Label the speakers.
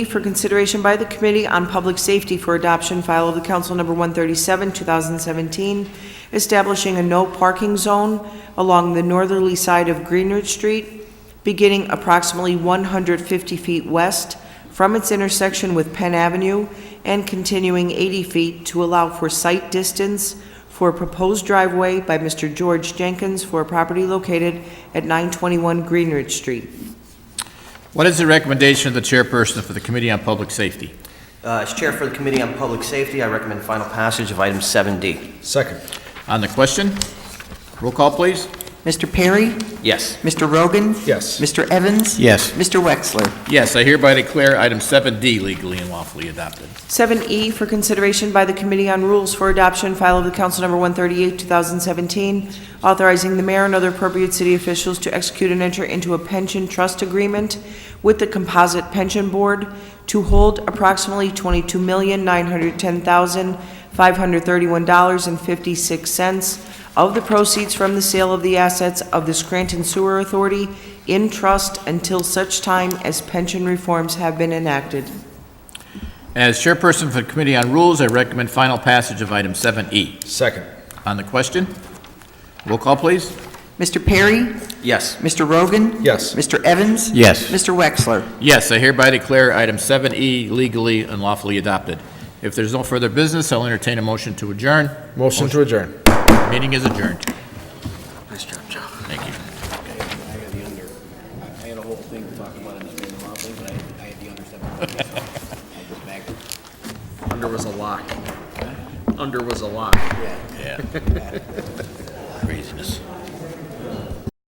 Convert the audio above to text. Speaker 1: for consideration by the Committee on Public Safety for Adoption, file of the Council Number 137, 2017, establishing a no parking zone along the northerly side of Greenridge Street, beginning approximately 150 feet west from its intersection with Penn Avenue and continuing 80 feet to allow for sight distance for a proposed driveway by Mr. George Jenkins for a property located at 921 Greenridge Street.
Speaker 2: What is the recommendation of the chairperson for the Committee on Public Safety?
Speaker 3: Uh, As Chair for the Committee on Public Safety, I recommend final passage of item 7D.
Speaker 4: Second.
Speaker 2: On the question? Roll call, please.
Speaker 5: Mr. Perry?
Speaker 3: Yes.
Speaker 5: Mr. Rogan?
Speaker 4: Yes.
Speaker 5: Mr. Evans?
Speaker 2: Yes.
Speaker 5: Mr. Wexler?
Speaker 2: Yes, I hereby declare item 7D legally and lawfully adopted.
Speaker 1: 7E E for consideration by the Committee on Rules for Adoption, file of the Council Number 138, 2017, authorizing the mayor and other appropriate city officials to execute and enter into a pension trust agreement with the Composite Pension Board to hold approximately $22,910,531.56 of the proceeds from the sale of the assets of the Scranton Sewer Authority in trust until such time as pension reforms have been enacted.
Speaker 2: As chairperson for the Committee on Rules, I recommend final passage of item 7E.
Speaker 4: Second.
Speaker 2: On the question? Roll call, please.
Speaker 5: Mr. Perry?
Speaker 3: Yes.
Speaker 5: Mr. Rogan?
Speaker 4: Yes.
Speaker 5: Mr. Evans?
Speaker 2: Yes.
Speaker 5: Mr. Wexler?
Speaker 2: Yes, I hereby declare item 7E legally and lawfully adopted. If there's no further business, I'll entertain a motion to adjourn.
Speaker 4: Motion to adjourn.
Speaker 2: Meeting is adjourned.
Speaker 3: Nice job, Joe.
Speaker 2: Thank you.
Speaker 6: I had a whole thing to talk about in the in the law thing, but I, I had the understanding. I just backed it.
Speaker 7: Under was a lock. Under was a lock.